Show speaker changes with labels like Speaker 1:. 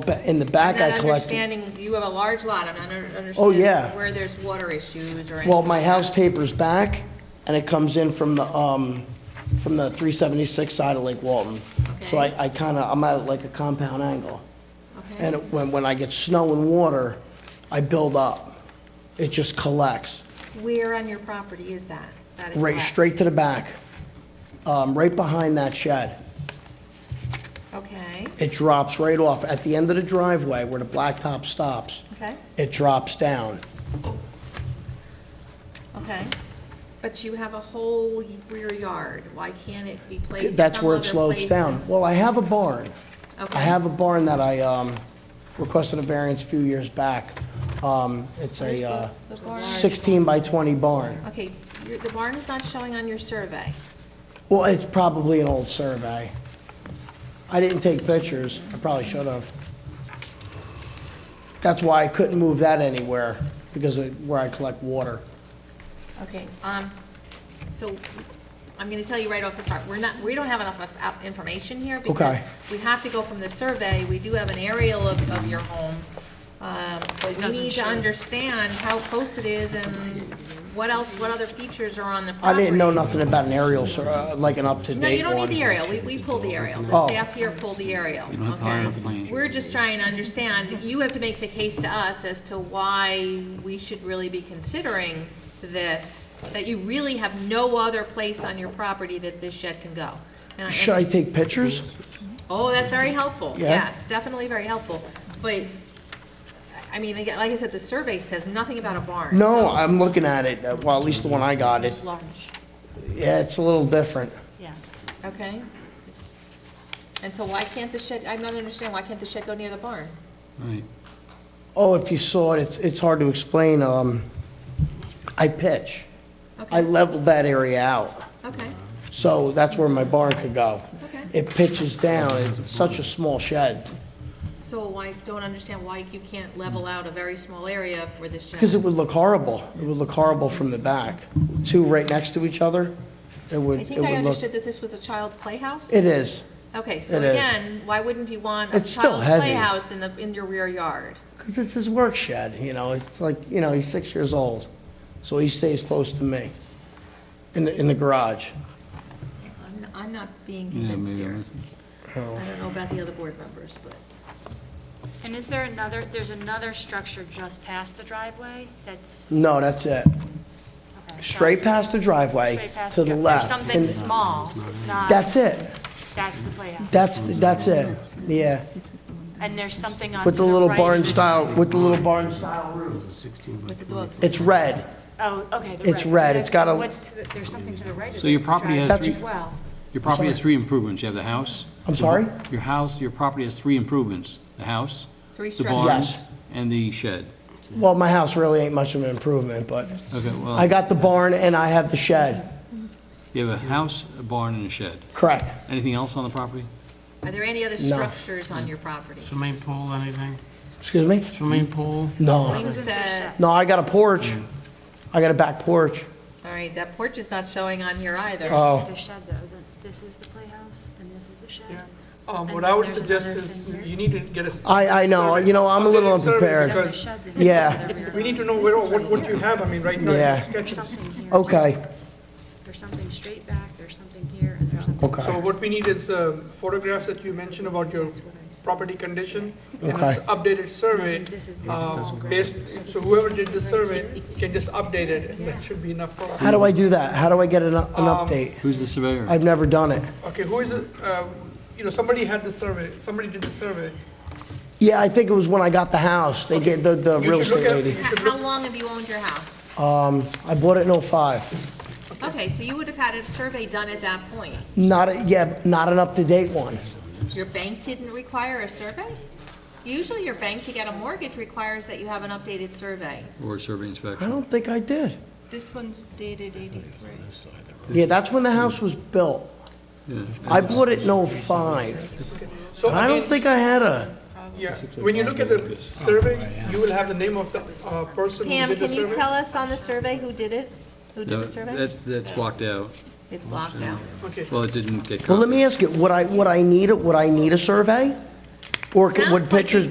Speaker 1: ba- in the back I
Speaker 2: Not
Speaker 1: collected. Oh,
Speaker 2: understanding, you have a large lot, I'm not under-
Speaker 1: yeah.
Speaker 2: understanding where there's water issues or anything.
Speaker 1: Well, my
Speaker 2: like that.
Speaker 1: house tapers back and it comes in from the, um, from the 376 side of Lake Walton. So
Speaker 2: Okay.
Speaker 1: I, I kind of, I'm at like a compound angle.
Speaker 2: Okay.
Speaker 1: And it- when, when I get snow and water, I build up. It just collects,
Speaker 2: Where on your property is that? that it
Speaker 1: right,
Speaker 2: collects?
Speaker 1: straight to the back, um, right behind that shed.
Speaker 2: Okay,
Speaker 1: It drops right off at the end of the driveway where the blacktop stops.
Speaker 2: okay,
Speaker 1: It drops down.
Speaker 2: okay. But you have a whole rear yard, why can't it be placed
Speaker 1: That's
Speaker 2: some
Speaker 1: where it
Speaker 2: other
Speaker 1: slopes
Speaker 2: place
Speaker 1: down.
Speaker 2: in-
Speaker 1: Well, I have a barn.
Speaker 2: Okay.
Speaker 1: I have a barn that I um, requested a variance a few years back. Um, It's
Speaker 2: Where's
Speaker 1: a
Speaker 2: the-
Speaker 1: uh,
Speaker 2: the barn?
Speaker 1: 16 by 20 barn.
Speaker 2: Okay, your- the barn is not showing on your survey.
Speaker 1: Well, it's probably an old survey. I didn't take pictures, I probably should have. That's why I couldn't move that anywhere, because of where I collect water.
Speaker 2: Okay, um, so I'm gonna tell you right off the start, we're not, we don't have enough of- of information here because
Speaker 1: Okay.
Speaker 2: we have to go from the survey, we do have an aerial of, of your home. Um, but we
Speaker 3: doesn't
Speaker 2: need to
Speaker 3: show.
Speaker 2: understand how close it is and what else, what other features are on the
Speaker 1: I
Speaker 2: property.
Speaker 1: didn't know nothing about an aerial, sur- uh, like an
Speaker 2: No, you
Speaker 1: up-to-date
Speaker 2: don't need the
Speaker 1: one.
Speaker 2: aerial, we, we pull the aerial,
Speaker 1: Oh.
Speaker 2: the staff here pull the aerial,
Speaker 4: don't have to hire a
Speaker 2: okay?
Speaker 4: plan.
Speaker 2: We're just trying to understand, you have to make the case to us as to why we should really be considering this, that you really have no other place on your property that this shed can go. And I-
Speaker 1: Should I take pictures?
Speaker 2: Oh, that's very helpful,
Speaker 1: Yeah.
Speaker 2: yes, definitely very helpful, but, I mean, again, like I said, the survey says nothing about a barn.
Speaker 1: No, I'm looking at it, Uh, well, at least the one I got, it,
Speaker 3: It's large,
Speaker 1: yeah, it's a little different.
Speaker 3: yeah.
Speaker 2: Okay? And so why can't the shed, I'm not understanding, why can't the shed go near the barn?
Speaker 4: Right.
Speaker 1: Oh, if you saw it, it's, it's hard to explain, um, I pitch. I
Speaker 2: Okay.
Speaker 1: leveled that area out,
Speaker 2: Okay,
Speaker 1: so that's where my barn could go.
Speaker 2: okay.
Speaker 1: It pitches down, it's such a small shed,
Speaker 2: So I don't understand why you can't level out a very small area for this shed.
Speaker 1: because it would look horrible. It would look horrible from the back. Two right next to each other, it would,
Speaker 2: I
Speaker 1: it
Speaker 2: think I
Speaker 1: would look.
Speaker 2: understood that this was a child's playhouse?
Speaker 1: It is,
Speaker 2: Okay, so
Speaker 1: it is.
Speaker 2: again, why wouldn't you want a
Speaker 1: It's still
Speaker 2: child's
Speaker 1: heavy.
Speaker 2: playhouse in the, in your rear yard?
Speaker 1: because it's his work shed, you know, it's like, you know, he's six years old, so he stays close to me in, the in the garage.
Speaker 2: I'm, I'm not being
Speaker 4: Yeah,
Speaker 2: convinced
Speaker 4: maybe.
Speaker 2: here.
Speaker 4: I'm-
Speaker 2: I don't know about the other board members, but,
Speaker 3: And is there another, there's another structure just past the driveway that's?
Speaker 1: No, that's it.
Speaker 3: okay, so-
Speaker 1: Straight past the driveway,
Speaker 3: Straight past
Speaker 1: to the
Speaker 3: dri-
Speaker 1: left.
Speaker 3: There's something
Speaker 1: and
Speaker 3: small, it's not,
Speaker 1: That's it,
Speaker 3: that's the playhouse.
Speaker 1: that's, that's it, yeah.
Speaker 3: And there's something on to
Speaker 1: With the
Speaker 3: the
Speaker 1: little
Speaker 3: right-
Speaker 1: barn style, with the little barn style roof.
Speaker 2: with the dogs.
Speaker 1: It's red.
Speaker 3: Oh, okay, the right.
Speaker 1: It's red, it's got a-
Speaker 3: What's to the- There's something to the right of
Speaker 4: So your
Speaker 3: the
Speaker 4: property has
Speaker 3: driveway
Speaker 1: three-
Speaker 3: As well.
Speaker 4: Your property has three improvements. You have the house.
Speaker 1: I'm sorry?
Speaker 4: Your house, your property has three improvements. The house,
Speaker 2: Three
Speaker 4: the
Speaker 2: structures.
Speaker 4: barn,
Speaker 1: Yes.
Speaker 4: and the shed.
Speaker 1: Well, my house really ain't much of an improvement, but
Speaker 4: Okay, well,
Speaker 1: I got the barn and I have the shed.
Speaker 4: you have a house, a barn, and a shed.
Speaker 1: Correct.
Speaker 4: Anything else on the property?
Speaker 2: Are there any other
Speaker 1: No.
Speaker 2: structures on your property?
Speaker 5: Swimming pool, anything?
Speaker 1: Excuse me?
Speaker 5: Swimming pool?
Speaker 6: Oh.
Speaker 1: No.
Speaker 2: Who said,
Speaker 1: No, I got a porch. I got a back porch.
Speaker 2: all right, that porch is not showing on here either.
Speaker 1: Oh.
Speaker 3: The shed though, the- this is the playhouse and this is the shed.
Speaker 6: Um,
Speaker 3: And
Speaker 6: What
Speaker 3: then
Speaker 6: I would
Speaker 3: there's
Speaker 6: suggest
Speaker 3: another
Speaker 6: is,
Speaker 3: thing here.
Speaker 6: you need to get a.
Speaker 1: I- I know.
Speaker 6: survey.
Speaker 1: You know, I'm a little
Speaker 6: Updated survey
Speaker 1: unprepared.
Speaker 3: Then the
Speaker 6: Because
Speaker 3: shed's in
Speaker 1: Yeah.
Speaker 3: the rear
Speaker 6: we need to
Speaker 3: yard.
Speaker 6: know where, what what you have, I mean, right now,
Speaker 1: Yeah.
Speaker 6: it's sketches.
Speaker 3: Something here.
Speaker 1: Okay,
Speaker 3: There's something straight back, there's something here, and there's something.
Speaker 1: okay.
Speaker 6: So what we need is uh, photographs that you mentioned about your property condition, and
Speaker 1: Okay.
Speaker 6: an updated survey,
Speaker 3: This is-
Speaker 6: uh, based, so whoever did the survey can just update it, and that should be enough for
Speaker 1: How
Speaker 6: us.
Speaker 1: do I do that? How do I get an, an update?
Speaker 4: Who's the surveyor?
Speaker 1: I've never done it.
Speaker 6: Okay, who is, it? uh, you know, somebody had the survey, somebody did the survey.
Speaker 1: Yeah, I think it was when I got the house. They gave the, the
Speaker 6: You
Speaker 1: real
Speaker 6: should look
Speaker 1: estate
Speaker 6: at-
Speaker 1: lady.
Speaker 6: you
Speaker 2: How
Speaker 6: should
Speaker 2: how
Speaker 6: look-
Speaker 2: long have you owned your house?
Speaker 1: Um, I bought it in '05.
Speaker 2: Okay, so you would have had a survey done at that point.
Speaker 1: Not, a- yeah, not an up-to-date one.
Speaker 2: Your bank didn't require a survey? Usually your bank to get a mortgage requires that you have an updated survey.
Speaker 4: Or survey
Speaker 1: I
Speaker 4: inspector?
Speaker 1: don't think I did.
Speaker 2: This one's dated eighty-three.
Speaker 1: Yeah, that's when the house was built.
Speaker 4: Yeah.
Speaker 1: I bought it in '05.
Speaker 6: So,
Speaker 1: I
Speaker 6: I
Speaker 1: don't
Speaker 6: mean,
Speaker 1: think I had a,
Speaker 6: yeah, when you look at the survey, you will have the name of the uh, person who
Speaker 2: Pam,
Speaker 6: did the
Speaker 2: can you
Speaker 6: survey.
Speaker 2: tell us on the survey who did it? Who did
Speaker 4: No,
Speaker 2: the survey?
Speaker 4: That's, that's blocked out.
Speaker 2: It's blocked out.
Speaker 6: Okay.
Speaker 4: Well, it didn't get copied.
Speaker 1: well, let me ask you, would I, would I need it, would I need a survey? Or could- would
Speaker 2: Sounds like
Speaker 1: pictures
Speaker 2: you